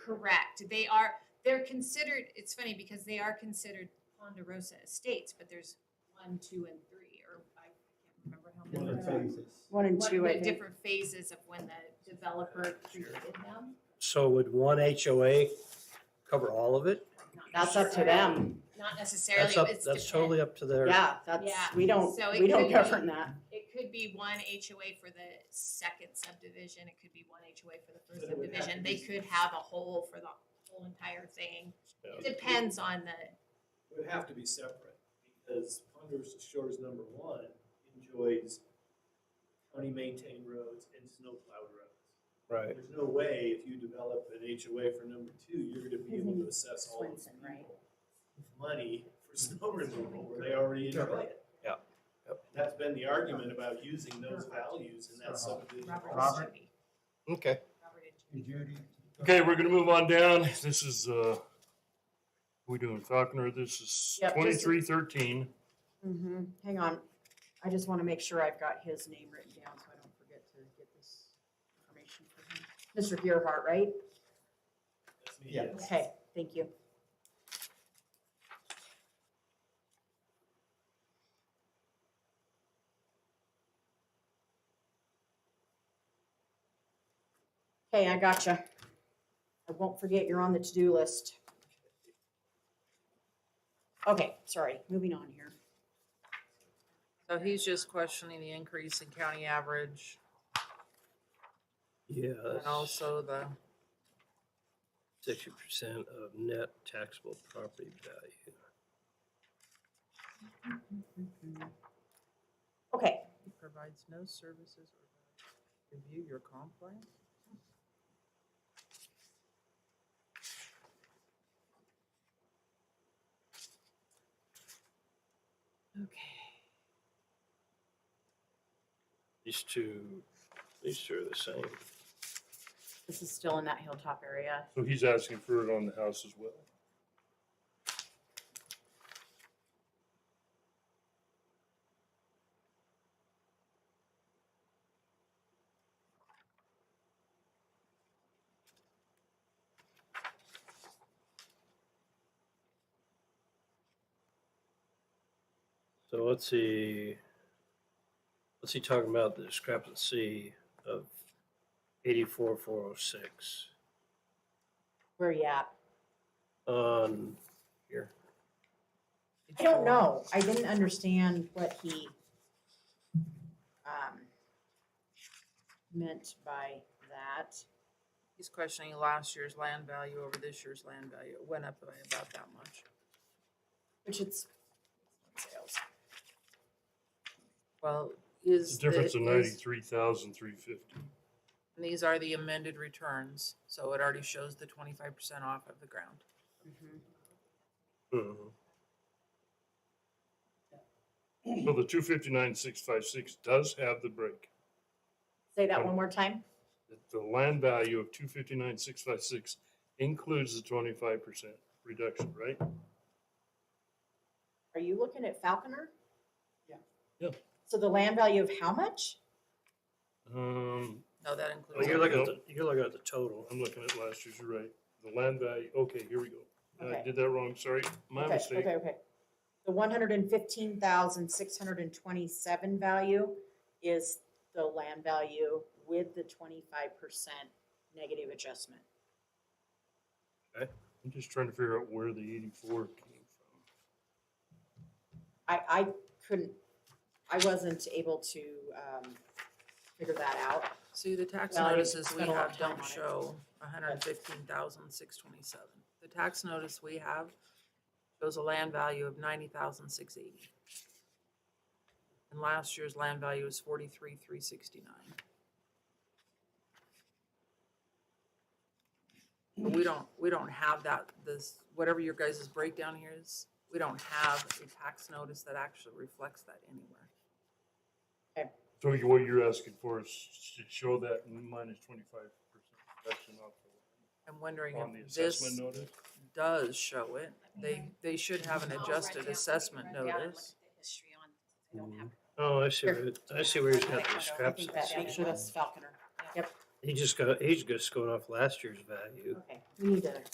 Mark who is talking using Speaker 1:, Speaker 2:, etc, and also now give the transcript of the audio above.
Speaker 1: Correct. They are, they're considered, it's funny because they are considered Ponderosa Estates, but there's one, two, and three, or I can't remember how many.
Speaker 2: One
Speaker 1: there
Speaker 2: of
Speaker 1: are.
Speaker 2: phases.
Speaker 3: One and
Speaker 1: What
Speaker 3: two, I
Speaker 1: the
Speaker 3: think.
Speaker 1: different phases of when the developer created them.
Speaker 4: So would one HOA cover all of it?
Speaker 1: Not
Speaker 3: That's up to
Speaker 1: necessarily-
Speaker 3: them.
Speaker 1: Not necessarily,
Speaker 4: That's up,
Speaker 1: it's
Speaker 4: that's
Speaker 1: depend-
Speaker 4: totally up to their,
Speaker 3: Yeah, that's,
Speaker 1: Yeah,
Speaker 3: we don't,
Speaker 1: so it
Speaker 3: we
Speaker 1: could
Speaker 3: don't
Speaker 1: be-
Speaker 3: govern that.
Speaker 1: It could be one HOA for the second subdivision, it could be one HOA for the first
Speaker 2: But it would have to
Speaker 1: subdivision,
Speaker 2: be-
Speaker 1: they could have a whole for the whole entire thing. It Depends on the,
Speaker 2: It Would have to be separate, because Ponderosa Shores number one enjoys county maintained roads and snow plowed roads.
Speaker 4: right,
Speaker 2: There's no way if you develop an HOA for number two, you're gonna be able to assess all those
Speaker 3: Swenson, right?
Speaker 2: people money for snow removal where they already enjoy it.
Speaker 4: Yeah.
Speaker 2: That's been the argument about using those values in that subdivision.
Speaker 1: Robert
Speaker 2: also.
Speaker 1: Robert
Speaker 4: okay.
Speaker 1: and Judy.
Speaker 5: Okay, we're gonna move on down. This is, uh, we doing Falconer, this is
Speaker 3: Yep, just-
Speaker 5: twenty-three thirteen.
Speaker 3: Mm-hmm. Hang on. I just want to make sure I've got his name written down so I don't forget to get this information from him. Mr. Gearhart, right?
Speaker 2: That's me,
Speaker 4: Yeah.
Speaker 2: yes.
Speaker 3: Okay, thank you. Okay, I gotcha. I won't forget you're on the to-do list. Okay, sorry, moving on here.
Speaker 6: So he's just questioning the increase in county average
Speaker 4: Yeah,
Speaker 6: and also the,
Speaker 4: sixty percent of net taxable property value.
Speaker 3: Mm-hmm. Okay,
Speaker 6: he provides no services or review your comp plan? Okay.
Speaker 4: These two, these two are the same.
Speaker 3: this is still in that hilltop area.
Speaker 5: So he's asking for it on the house as well.
Speaker 4: So let's see. What's he talking about? The discrepancy of eighty-four, four oh six
Speaker 3: Where are you at?
Speaker 4: on here.
Speaker 3: I don't know. I didn't understand what he um, meant by that.
Speaker 6: He's questioning last year's land value over this year's land value. It went up by about that much.
Speaker 3: Which it's sales.
Speaker 6: Well,
Speaker 5: It's
Speaker 6: is.
Speaker 5: a difference of
Speaker 6: the- is-
Speaker 5: ninety-three thousand, three fifty.
Speaker 6: And these are the amended returns, so it already shows the twenty-five percent off of the ground.
Speaker 4: Mhm.
Speaker 5: So the two fifty-nine, six five six does have the break.
Speaker 3: Say that one more time.
Speaker 5: The land value of two fifty-nine, six five six includes the twenty-five percent reduction, right?
Speaker 3: Are you looking at Falconer?
Speaker 7: Yeah.
Speaker 5: Yeah.
Speaker 3: So the land value of how much?
Speaker 5: Um,
Speaker 6: No, that
Speaker 4: Well,
Speaker 6: includes.
Speaker 4: Oh, you're looking at,
Speaker 5: Nope.
Speaker 4: the- you're looking at the total.
Speaker 5: I'm looking at last year's, you're right. The land value, okay, here we go. I
Speaker 3: Okay.
Speaker 5: did that wrong, sorry, my
Speaker 3: okay,
Speaker 5: mistake.
Speaker 3: okay, okay. The one hundred and fifteen thousand six hundred and twenty-seven value is the land value with the twenty-five percent negative adjustment.
Speaker 5: I'm just trying to figure out where the eighty-four came from.
Speaker 3: I, I couldn't, I wasn't able to, um, figure that out.
Speaker 6: See, the tax
Speaker 3: Well, I didn't
Speaker 6: notices we
Speaker 3: spend a lot of
Speaker 6: have
Speaker 3: time
Speaker 6: don't
Speaker 3: on it.
Speaker 6: show a hundred and fifteen thousand, six twenty-seven. The tax notice we have shows a land value of ninety thousand, six eighty. And last year's land value was forty-three, three sixty-nine. But we don't, we don't have that, this, whatever your guys' breakdown here is, we don't have a tax notice that actually reflects that anywhere.
Speaker 5: So you- what you're asking for is to show that minus twenty-five percent reduction off the-
Speaker 6: I'm wondering
Speaker 5: on the
Speaker 6: if this
Speaker 5: assessment notice?
Speaker 6: does show it. They, they should have an
Speaker 1: I'll write
Speaker 6: adjusted
Speaker 1: down-
Speaker 6: assessment
Speaker 1: write down and
Speaker 6: notice.
Speaker 1: look at the History on, I don't have
Speaker 4: Oh, I see, where it- I see where he's got the
Speaker 1: I think
Speaker 3: I think that,
Speaker 4: discrepancy.
Speaker 3: make sure that's Falconer.
Speaker 1: Yeah.
Speaker 3: Mm. Yep,
Speaker 4: He just got, he's just going off last year's value.
Speaker 3: Okay, we need to